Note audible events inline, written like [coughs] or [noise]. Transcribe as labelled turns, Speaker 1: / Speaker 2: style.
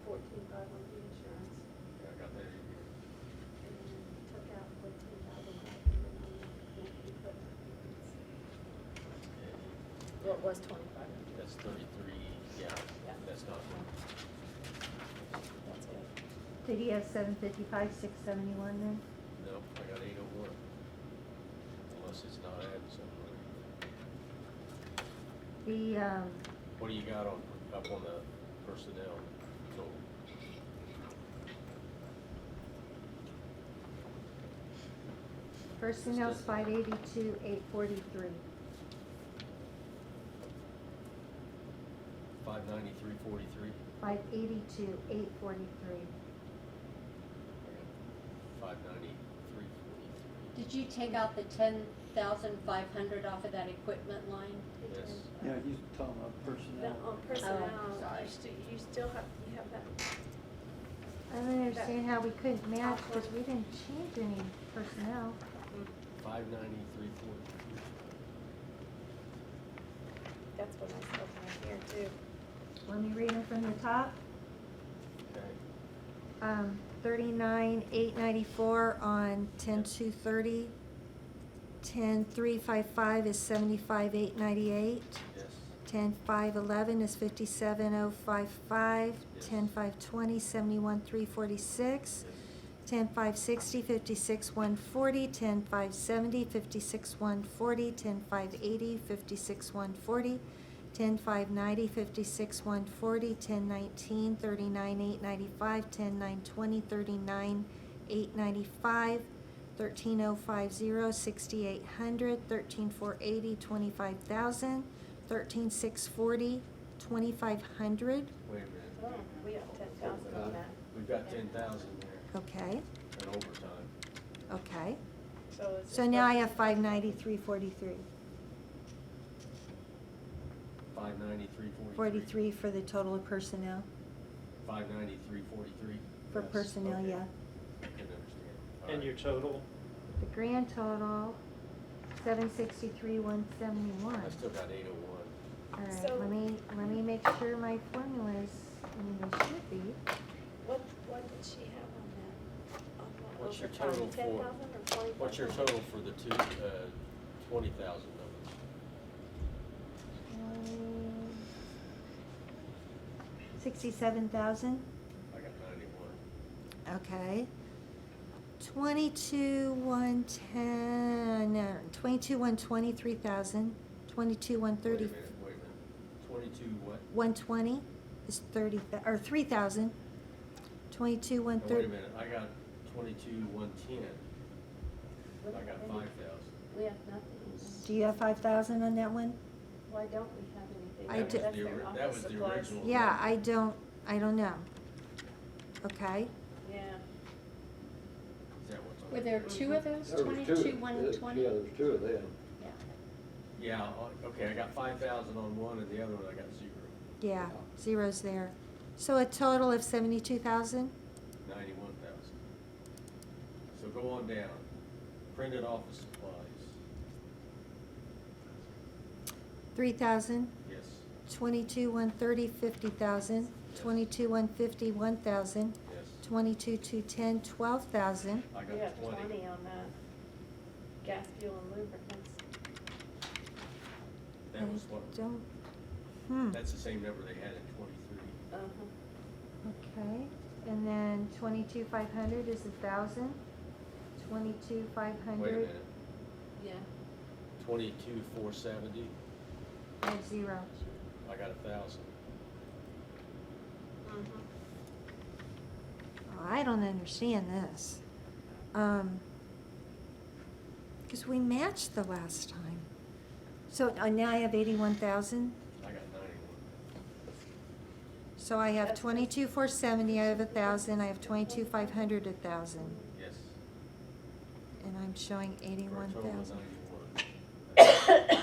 Speaker 1: five with the insurance
Speaker 2: Yeah, I got that in here.
Speaker 1: and then took out fourteen thousand five hundred on the equipment.
Speaker 3: Well, it was twenty-five hundred,
Speaker 4: That's thirty-three, yeah,
Speaker 3: Yeah.
Speaker 4: that's not,
Speaker 3: that's it.
Speaker 5: Did he have seven fifty-five, six seventy-one then?
Speaker 4: no, I got eight oh one. Unless it's not added somewhere.
Speaker 5: The, um,
Speaker 4: What do you got on, up on the personnel total?
Speaker 5: personnel's five eighty-two, eight forty-three.
Speaker 4: Five ninety-three forty-three,
Speaker 5: Five eighty-two, eight forty-three.
Speaker 4: five ninety-three forty-three.
Speaker 6: Did you take out the ten thousand five hundred off of that equipment line?
Speaker 4: Yes.
Speaker 7: Yeah, he's talking about
Speaker 1: But
Speaker 7: personnel.
Speaker 1: on um, personnel,
Speaker 6: sorry.
Speaker 1: you still, you still have, you have that,
Speaker 5: I don't understand how we couldn't match, cause we didn't change any personnel.
Speaker 4: Five ninety-three forty-three.
Speaker 1: that's what I said right here too.
Speaker 5: Let me read them from the top.
Speaker 4: Okay.
Speaker 5: Um, thirty-nine, eight ninety-four on ten two thirty. Ten three five five is seventy-five, eight ninety-eight.
Speaker 4: Yes.
Speaker 5: Ten five eleven is fifty-seven oh five five.
Speaker 4: Yes.
Speaker 5: Ten five twenty, seventy-one three forty-six. Ten five sixty, fifty-six one forty. Ten five seventy, fifty-six one forty. Ten five eighty, fifty-six one forty. Ten five ninety, fifty-six one forty. Ten nineteen, thirty-nine eight ninety-five. Ten nine twenty, thirty-nine eight ninety-five. Thirteen oh five zero, sixty-eight hundred. Thirteen four eighty, twenty-five thousand. Thirteen six forty, twenty-five hundred.
Speaker 4: Wait a minute.
Speaker 1: Oh, we have ten thousand
Speaker 4: Uh,
Speaker 1: on that,
Speaker 4: We've got ten thousand there
Speaker 5: Okay,
Speaker 4: in overtime.
Speaker 5: okay.
Speaker 1: so it's.
Speaker 5: So now I have five ninety-three forty-three.
Speaker 4: Five ninety-three
Speaker 5: Forty-three for the total of personnel,
Speaker 4: Five ninety-three forty-three.
Speaker 5: for personnel,
Speaker 4: okay.
Speaker 5: yeah.
Speaker 4: I can understand. All
Speaker 7: And
Speaker 4: right.
Speaker 7: your total,
Speaker 5: The grand total, seven sixty-three, one seventy-one.
Speaker 4: I still got eight oh one.
Speaker 5: All right,
Speaker 1: So-
Speaker 5: let me, let me make sure my formulas, I mean, they should be.
Speaker 1: What, what did she have on that? On what
Speaker 4: What's your
Speaker 1: overtime?
Speaker 4: total for-
Speaker 1: 10,000 or 45,000?
Speaker 4: What's your total for the two, uh, twenty thousand numbers?
Speaker 5: Sixty-seven thousand,
Speaker 4: I got ninety-one.
Speaker 5: okay. Twenty-two, one ten, no, twenty-two, one twenty-three thousand, twenty-two, one thirty.
Speaker 4: Wait a minute, wait a minute. Twenty-two what?
Speaker 5: One twenty is thirty, thou- or three thousand. Twenty-two, one
Speaker 4: No, Oh, Wait a
Speaker 5: thirty.
Speaker 4: minute, I got twenty-two one ten. I got five thousand.
Speaker 6: We have nothing.
Speaker 5: Do you have five thousand on that one?
Speaker 6: Why don't we have anything?
Speaker 5: I do-
Speaker 1: That's
Speaker 4: That was the
Speaker 1: their
Speaker 4: ori- that
Speaker 1: office
Speaker 4: was the
Speaker 1: supplies.
Speaker 4: original.
Speaker 5: Yeah, I don't, I don't know. Okay,
Speaker 1: Yeah.
Speaker 4: Is that what's on
Speaker 6: Were there two of those,
Speaker 8: There was two.
Speaker 6: twenty-two, one
Speaker 8: Yeah,
Speaker 6: twenty?
Speaker 8: Yeah, there's two of them.
Speaker 6: Yeah.
Speaker 4: Yeah, o- okay, I got five thousand on one and the other one I got zero.
Speaker 5: yeah, zero's there. So a total of seventy-two thousand?
Speaker 4: Ninety-one thousand. So go on down. Printed office supplies,
Speaker 5: Three thousand?
Speaker 4: yes.
Speaker 5: Twenty-two, one thirty, fifty thousand. Twenty-two, one fifty, one thousand.
Speaker 4: Yes.
Speaker 5: Twenty-two, two ten, twelve thousand.
Speaker 4: I
Speaker 1: We
Speaker 4: got
Speaker 1: have
Speaker 4: the twenty.
Speaker 1: twenty on that. Gas, fuel and lubricants.
Speaker 4: That was what,
Speaker 5: Don't, hmm,
Speaker 4: that's the same number they had in twenty-three.
Speaker 1: Uh-huh.
Speaker 5: okay. And then twenty-two, five hundred is a thousand. Twenty-two, five
Speaker 4: Wait a
Speaker 5: hundred,
Speaker 4: minute,
Speaker 6: Yeah.
Speaker 4: twenty-two four seventy,
Speaker 5: there's zero.
Speaker 4: I got a thousand.
Speaker 1: Mm-hmm.
Speaker 5: I don't understand this. Um, cause we matched the last time. So uh, now I have eighty-one thousand.
Speaker 4: I got ninety-one.
Speaker 5: So I have
Speaker 1: That's-
Speaker 5: twenty-two, four seventy, I have a thousand, I have twenty-two, five hundred, a thousand,
Speaker 4: Yes.
Speaker 5: and I'm showing
Speaker 4: For a
Speaker 5: eighty-one
Speaker 4: total of
Speaker 5: thousand.
Speaker 4: [coughs] 91.